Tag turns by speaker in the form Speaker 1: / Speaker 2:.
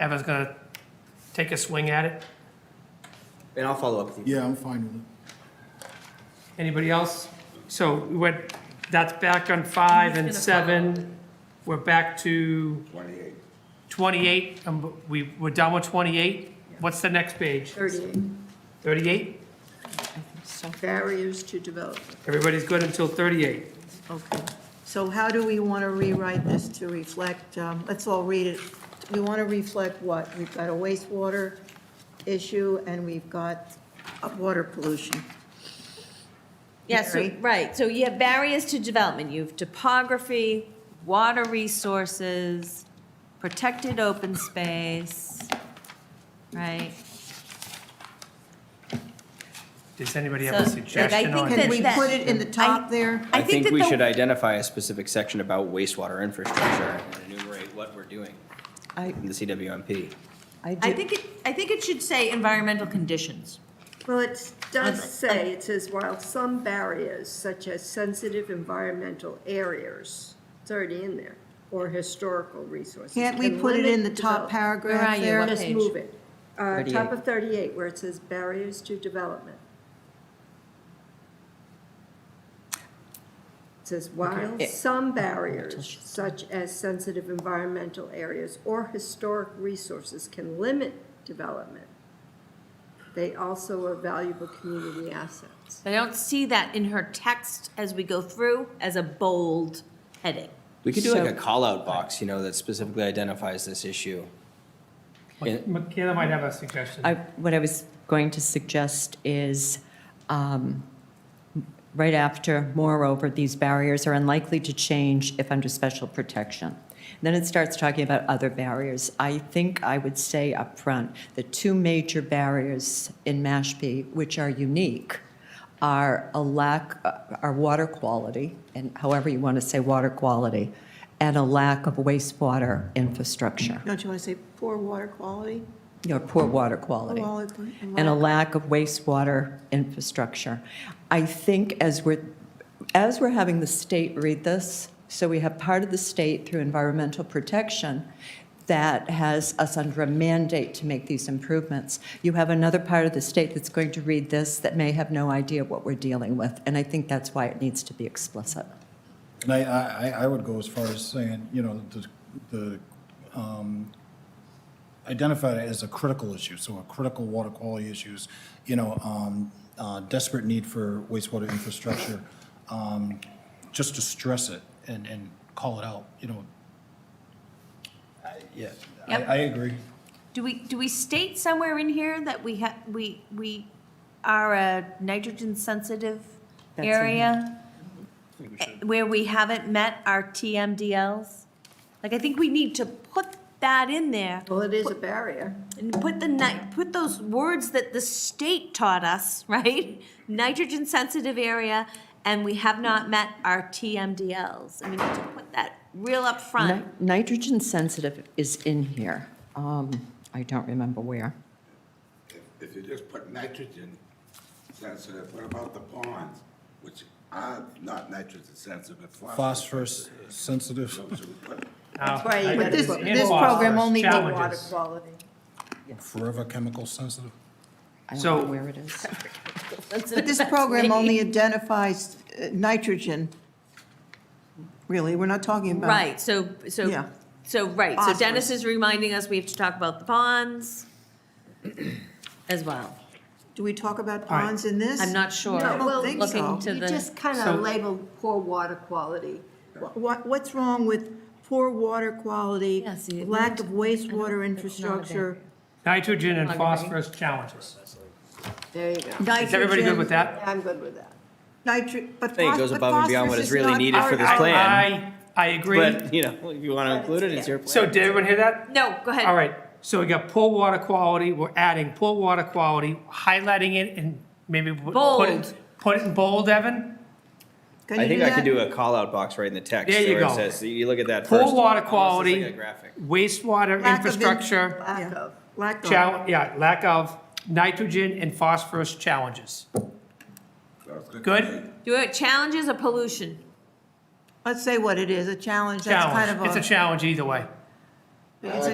Speaker 1: Evan's gonna take a swing at it.
Speaker 2: And I'll follow up with you.
Speaker 3: Yeah, I'm fine with it.
Speaker 1: Anybody else? So we went, that's back on five and
Speaker 4: He's gonna follow.
Speaker 1: seven. We're back to
Speaker 5: Twenty-eight.
Speaker 1: 28, and we, we're done with 28. What's the next page?
Speaker 4: 38,
Speaker 1: 38?
Speaker 4: barriers to development,
Speaker 1: Everybody's good until 38.
Speaker 4: okay. So how do we want to rewrite this to reflect, um, let's all read it. We want to reflect what? We've got a wastewater issue and we've got a water pollution.
Speaker 6: Yes, so-
Speaker 4: Mary?
Speaker 6: right, so you have barriers to development, you have topography, water resources, protected open space, right?
Speaker 1: Does anybody have a
Speaker 6: So, like, I
Speaker 1: suggestion
Speaker 6: think
Speaker 1: on
Speaker 6: that-
Speaker 4: Can
Speaker 1: it?
Speaker 4: we put it in the top there?
Speaker 2: I think we
Speaker 6: the-
Speaker 2: should identify a specific section about wastewater infrastructure and enumerate what we're doing
Speaker 6: I,
Speaker 2: in the CWMP.
Speaker 6: I think it, I think it should say environmental conditions.
Speaker 4: Well, it does say, it says, while some barriers such as sensitive environmental areas, it's already in there, or historical resources.
Speaker 7: Can't we
Speaker 4: can
Speaker 7: put it in the
Speaker 4: limit
Speaker 7: top
Speaker 4: develop-
Speaker 6: Where
Speaker 7: paragraph
Speaker 6: are you?
Speaker 7: there?
Speaker 6: What
Speaker 4: Just
Speaker 6: page?
Speaker 4: move it. Uh, top
Speaker 2: 38.
Speaker 4: of thirty-eight, where it says barriers to development. It says, while
Speaker 6: Eh.
Speaker 4: some barriers such as sensitive environmental areas or historic resources can limit development, they also are valuable community assets.
Speaker 6: I don't see that in her text as we go through as a bold heading.
Speaker 2: We could do like a call-out box, you know, that specifically identifies this issue. And-
Speaker 1: Michaela might have a suggestion.
Speaker 8: I, what I was going to suggest is, um, right after, moreover, these barriers are unlikely to change if under special protection. Then it starts talking about other barriers. I think I would say up front the two major barriers in Mashpee, which are unique, are a lack, uh, are water quality, and however you want to say water quality, and a lack of wastewater infrastructure,
Speaker 7: Don't you want to say poor water quality?
Speaker 8: you know, poor water
Speaker 7: Poor
Speaker 8: quality
Speaker 7: water
Speaker 8: and a
Speaker 7: quality.
Speaker 8: lack of wastewater infrastructure. I think as we're, as we're having the state read this, so we have part of the state through environmental protection that has us under a mandate to make these improvements. You have another part of the state that's going to read this that may have no idea what we're dealing with, and I think that's why it needs to be explicit.
Speaker 3: And I, I, I- I would go as far as saying, you know, the, the, um, identify it as a critical issue, so a critical water quality issues, you know, um, uh, desperate need for wastewater infrastructure, um, just to stress it and, and call it out, you know. I- Yeah, I,
Speaker 6: Yep.
Speaker 3: I agree.
Speaker 6: Do we, do we state somewhere in here that we ha, we, we are a nitrogen-sensitive
Speaker 8: That's in
Speaker 6: area? Where we haven't met our TMDLs? Like, I think we need to put that in there,
Speaker 4: Well, it is a barrier.
Speaker 6: and put the ni, put those words that the state taught us, right? Nitrogen-sensitive area, and we have not met our TMDLs. I mean, to put that real up front.
Speaker 8: Ni- Nitrogen sensitive is in here. Um, I don't remember where.
Speaker 5: If, if you just put nitrogen sensitive, what about the ponds, which are not nitrogen sensitive, but phosphorus?
Speaker 3: Phosphorus sensitive.
Speaker 5: So should we put-
Speaker 1: That's
Speaker 4: Right, but this, this
Speaker 1: Phosphorus
Speaker 4: program only did water
Speaker 1: challenges.
Speaker 4: quality.
Speaker 3: Forever chemical sensitive?
Speaker 8: I don't
Speaker 1: So-
Speaker 8: know where it is.
Speaker 7: But this program only identifies uh, nitrogen, really, we're not talking about.
Speaker 6: Right, so, so,
Speaker 7: Yeah.
Speaker 6: so, right, so Dennis is reminding us we have to talk about the ponds as well.
Speaker 7: Do we talk about ponds in this?
Speaker 6: I'm not sure.
Speaker 7: I
Speaker 4: No, well,
Speaker 7: don't think
Speaker 6: Looking
Speaker 7: so.
Speaker 6: to
Speaker 4: You
Speaker 6: the,
Speaker 4: just kind
Speaker 1: So-
Speaker 4: of labeled poor water quality.
Speaker 7: What, what's wrong with poor water quality,
Speaker 6: Yeah, see, it
Speaker 7: lack of wastewater
Speaker 6: it's not a
Speaker 7: infrastructure?
Speaker 1: Nitrogen and
Speaker 6: Okay.
Speaker 1: phosphorus challenges.
Speaker 4: There you go.
Speaker 1: Is everybody good with that?
Speaker 4: I'm good with that.
Speaker 7: Nitrogen, but
Speaker 2: I think it goes
Speaker 7: phos- but
Speaker 2: above and beyond what
Speaker 7: phosphorus
Speaker 2: is
Speaker 7: is
Speaker 2: really
Speaker 7: not
Speaker 2: needed for
Speaker 7: part-
Speaker 2: this
Speaker 1: I-
Speaker 2: plan.
Speaker 1: I, I agree.
Speaker 2: But, you know, if you want to include it, it's your plan.
Speaker 1: So did everyone hear that?
Speaker 6: no, go ahead.
Speaker 1: All right, so we got poor water quality, we're adding poor water quality, highlighting it and maybe w- put it,
Speaker 6: Bold.
Speaker 1: put it in bold, Evan?
Speaker 7: Can
Speaker 2: I
Speaker 7: you
Speaker 2: think I could
Speaker 7: that?
Speaker 2: do a call-out box right in the text.
Speaker 1: There you
Speaker 2: where it
Speaker 1: go.
Speaker 2: says- You look at that first.
Speaker 1: Poor water
Speaker 2: almost as like a
Speaker 1: quality,
Speaker 2: graphic.
Speaker 1: wastewater
Speaker 7: Lack of in-
Speaker 1: infrastructure,
Speaker 4: Lack
Speaker 7: Yeah.
Speaker 4: of.
Speaker 7: Lack of.
Speaker 1: chal, yeah, lack of nitrogen and phosphorus challenges.
Speaker 5: so it's to
Speaker 1: Good?
Speaker 5: make-
Speaker 6: Do it, challenges or pollution?
Speaker 7: Let's say what it is, a challenge, that's kind of
Speaker 1: Challenge,
Speaker 7: a.
Speaker 1: it's a challenge either way.
Speaker 7: It's a